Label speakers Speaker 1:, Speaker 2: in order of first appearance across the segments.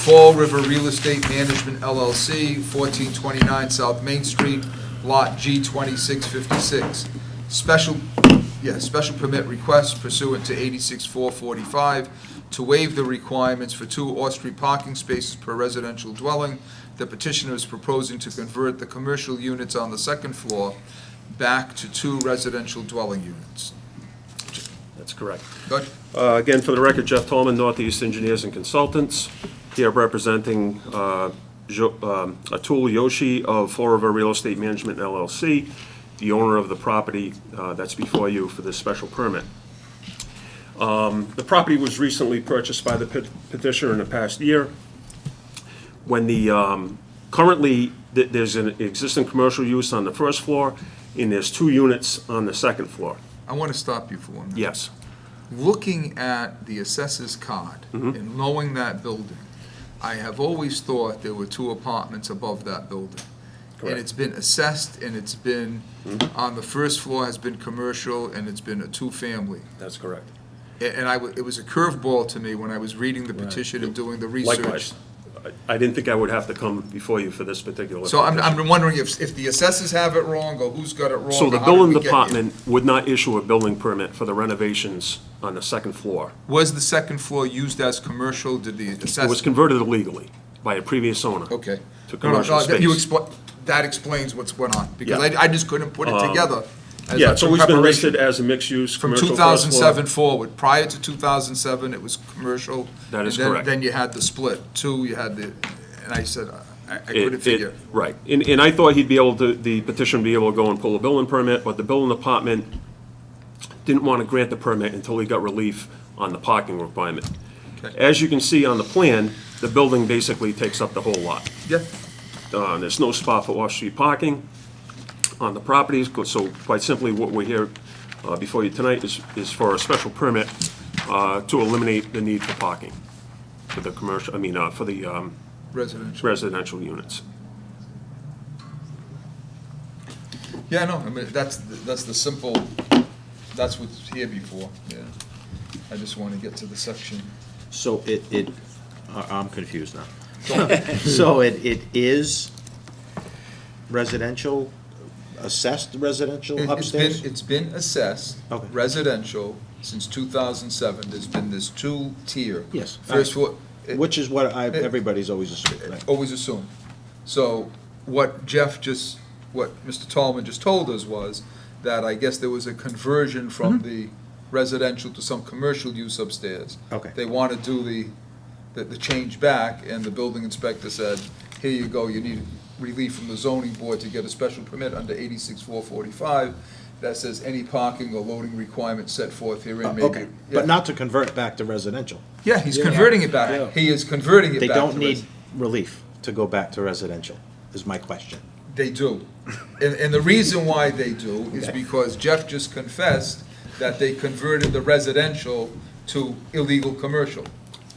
Speaker 1: Fall River Real Estate Management LLC, 1429 South Main Street, Lot G2656. Special, yeah, special permit request pursuant to 86445 to waive the requirements for two off-street parking spaces per residential dwelling. The petitioner is proposing to convert the commercial units on the second floor back to two residential dwelling units.
Speaker 2: That's correct.
Speaker 1: Good?
Speaker 2: Uh, Again, for the record, Jeff Tolman, Northeast Engineers and Consultants, here representing uh, Jo- um, Atul Yoshi of Fall River Real Estate Management LLC, the owner of the property uh, that's before you for this special permit. Um, The property was recently purchased by the pet- petitioner in the past year. When the, um, currently, th- there's an existing commercial use on the first floor, and there's two units on the second floor.
Speaker 1: I want to stop you for one minute.
Speaker 2: Yes.
Speaker 1: looking at the assessor's card
Speaker 2: Mm-hmm.
Speaker 1: and knowing that building, I have always thought there were two apartments above that building. And
Speaker 2: Correct. Mm-hmm.
Speaker 1: it's been assessed and it's been, on the first floor has been commercial and it's been a two-family.
Speaker 2: That's correct.
Speaker 1: A- And I, wa- it was a curveball to me when I was reading the petition and doing the research.
Speaker 2: Likewise. I I didn't think I would have to come before you for this particular.
Speaker 1: So I'm,
Speaker 2: petition.
Speaker 1: I'm wondering if, if the assessors have it wrong or who's got it wrong.
Speaker 2: So the
Speaker 1: or how did
Speaker 2: building
Speaker 1: we get here?
Speaker 2: department would not issue a building permit for the renovations on the second floor.
Speaker 1: Was the second floor used as commercial? Did the assessor?
Speaker 2: It was converted illegally by a previous owner.
Speaker 1: Okay. No,
Speaker 2: To
Speaker 1: no,
Speaker 2: commercial
Speaker 1: no, that- You
Speaker 2: space.
Speaker 1: expla that explains what's went on, because
Speaker 2: Yeah. Um,
Speaker 1: I, I just couldn't put it together. as
Speaker 2: Yeah,
Speaker 1: a
Speaker 2: it's always been
Speaker 1: preparation.
Speaker 2: listed as a mixed-use
Speaker 1: From
Speaker 2: commercial
Speaker 1: two
Speaker 2: first
Speaker 1: thousand seven
Speaker 2: floor.
Speaker 1: forward, prior to two thousand seven, it was commercial.
Speaker 2: That
Speaker 1: and
Speaker 2: is
Speaker 1: then-
Speaker 2: correct.
Speaker 1: Then you had the split, two, you had the, and I said, I, I couldn't
Speaker 2: It-
Speaker 1: figure.
Speaker 2: it- Right. And, and I thought he'd be able to, the petition would be able to go and pull a building permit, but the building department didn't want to grant the permit until he got relief on the parking requirement.
Speaker 1: Okay.
Speaker 2: As you can see on the plan, the building basically takes up the whole lot.
Speaker 1: Yeah,
Speaker 2: Uh, There's no spot for off-street parking on the properties, so quite simply, what we're here uh, before you tonight is, is for a special permit uh, to eliminate the need for parking for the commercial, I mean, uh, for the um,
Speaker 1: residential.
Speaker 2: residential units.
Speaker 1: Yeah, no, I mean, that's, the- that's the simple, that's what's here before, yeah. I just want to get to the section.
Speaker 3: So it, it, I- I'm confused now. So it, it is residential, assessed
Speaker 1: It-
Speaker 3: residential
Speaker 1: It's been,
Speaker 3: upstairs?
Speaker 1: it's been assessed
Speaker 3: Okay.
Speaker 1: residential since 2007. There's been this two-tier.
Speaker 3: Yes.
Speaker 1: First floor, it-
Speaker 3: Which is what I, everybody's always assumed, right?
Speaker 1: always assumed. So what Jeff just, what Mr. Tallman just told us was that I guess there was a conversion from
Speaker 3: Mm-hmm.
Speaker 1: the residential to some commercial use upstairs.
Speaker 3: Okay.
Speaker 1: They want to do the, the, the change back, and the building inspector said, here you go, you need relief from the zoning board to get a special permit under eighty-six four forty-five that says any parking or loading requirement set forth herein
Speaker 3: Uh,
Speaker 1: may be.
Speaker 3: Okay,
Speaker 1: Yeah.
Speaker 3: but not to convert back to residential.
Speaker 1: Yeah, he's converting it
Speaker 3: Yeah.
Speaker 1: back. He is converting it
Speaker 3: They
Speaker 1: back.
Speaker 3: don't
Speaker 1: to
Speaker 3: need
Speaker 1: resi-
Speaker 3: relief to go back to residential, is my question.
Speaker 1: They do. And, and the reason why they do is because Jeff just confessed that they converted the residential to illegal commercial.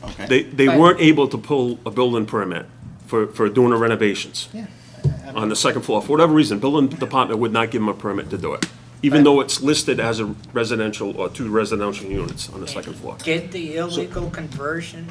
Speaker 3: Okay.
Speaker 2: They, they
Speaker 4: But-
Speaker 2: weren't able to pull a building permit for, for doing the renovations on the second floor. For whatever reason, building department would not give them a permit to do it, even though it's listed as a residential or two residential units on the second floor.
Speaker 4: Did the illegal conversion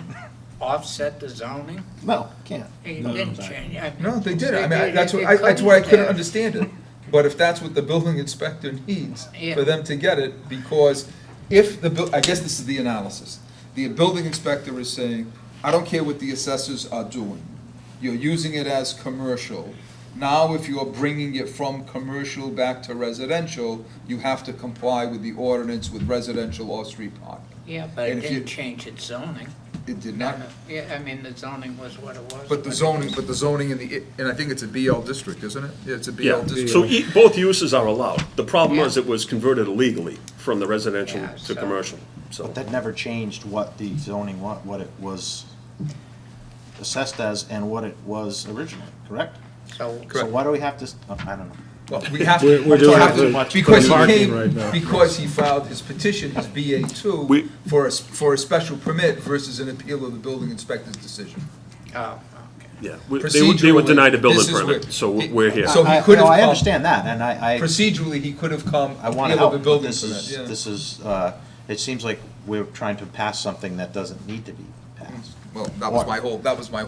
Speaker 4: offset the zoning?
Speaker 5: No, can't.
Speaker 4: It
Speaker 5: No, no,
Speaker 4: didn't
Speaker 5: sorry.
Speaker 4: change. I mean,
Speaker 1: No, they did. I mean, I-
Speaker 4: it-
Speaker 1: that's what,
Speaker 4: it
Speaker 1: I- that's why I couldn't
Speaker 4: have.
Speaker 1: understand it. But if that's what the building inspector needs,
Speaker 4: Yeah.
Speaker 1: for them to get it, because if the, buil- I guess this is the analysis. The building inspector is saying, I don't care what the assessors are doing. You're using it as commercial. Now, if you're bringing it from commercial back to residential, you have to comply with the ordinance with residential off-street parking.
Speaker 4: Yeah, but
Speaker 1: And
Speaker 4: it
Speaker 1: if you-
Speaker 4: didn't change its zoning.
Speaker 1: It did
Speaker 4: No,
Speaker 1: not,
Speaker 4: no. Yeah, I mean, the zoning was what it was.
Speaker 1: but the zoning, but the zoning in the, and I think it's a BL district, isn't it? Yeah, it's a BL
Speaker 2: Yeah,
Speaker 1: district.
Speaker 2: so e- both uses are allowed. The problem
Speaker 4: Yeah.
Speaker 2: was it was converted illegally from the residential
Speaker 4: Yeah,
Speaker 2: to
Speaker 4: so-
Speaker 2: commercial, so.
Speaker 5: But that never changed what the zoning, what, what it was assessed as and what it was originally, correct?
Speaker 4: So,
Speaker 5: So
Speaker 1: Correct.
Speaker 5: why do we have to, s- oh, I don't know.
Speaker 1: Well, we have
Speaker 6: We're-
Speaker 1: to,
Speaker 6: we're
Speaker 1: we
Speaker 6: doing
Speaker 1: have
Speaker 6: it
Speaker 1: to,
Speaker 6: for-
Speaker 1: because he
Speaker 6: for parking right
Speaker 1: came,
Speaker 6: now.
Speaker 1: because he filed his petition, his BA two,
Speaker 2: We-
Speaker 1: for a, s- for a special permit versus an appeal of the building inspector's decision.
Speaker 4: oh, okay.
Speaker 2: Yeah, we- they were- they were
Speaker 1: Procedurally,
Speaker 2: denied a building
Speaker 1: this is where-
Speaker 2: permit, so we're we're here.
Speaker 1: So he
Speaker 5: I-
Speaker 1: could
Speaker 5: no,
Speaker 1: have
Speaker 5: I
Speaker 1: come-
Speaker 5: understand that, and I, I,
Speaker 1: Procedurally, he could have come
Speaker 5: I want to
Speaker 1: appeal of a
Speaker 5: help, but
Speaker 1: building
Speaker 5: this is,
Speaker 1: permit,
Speaker 5: this is, uh, it seems like we're trying to pass something that doesn't need to be
Speaker 1: yeah.
Speaker 5: passed.
Speaker 1: Well, that was my whole, that was my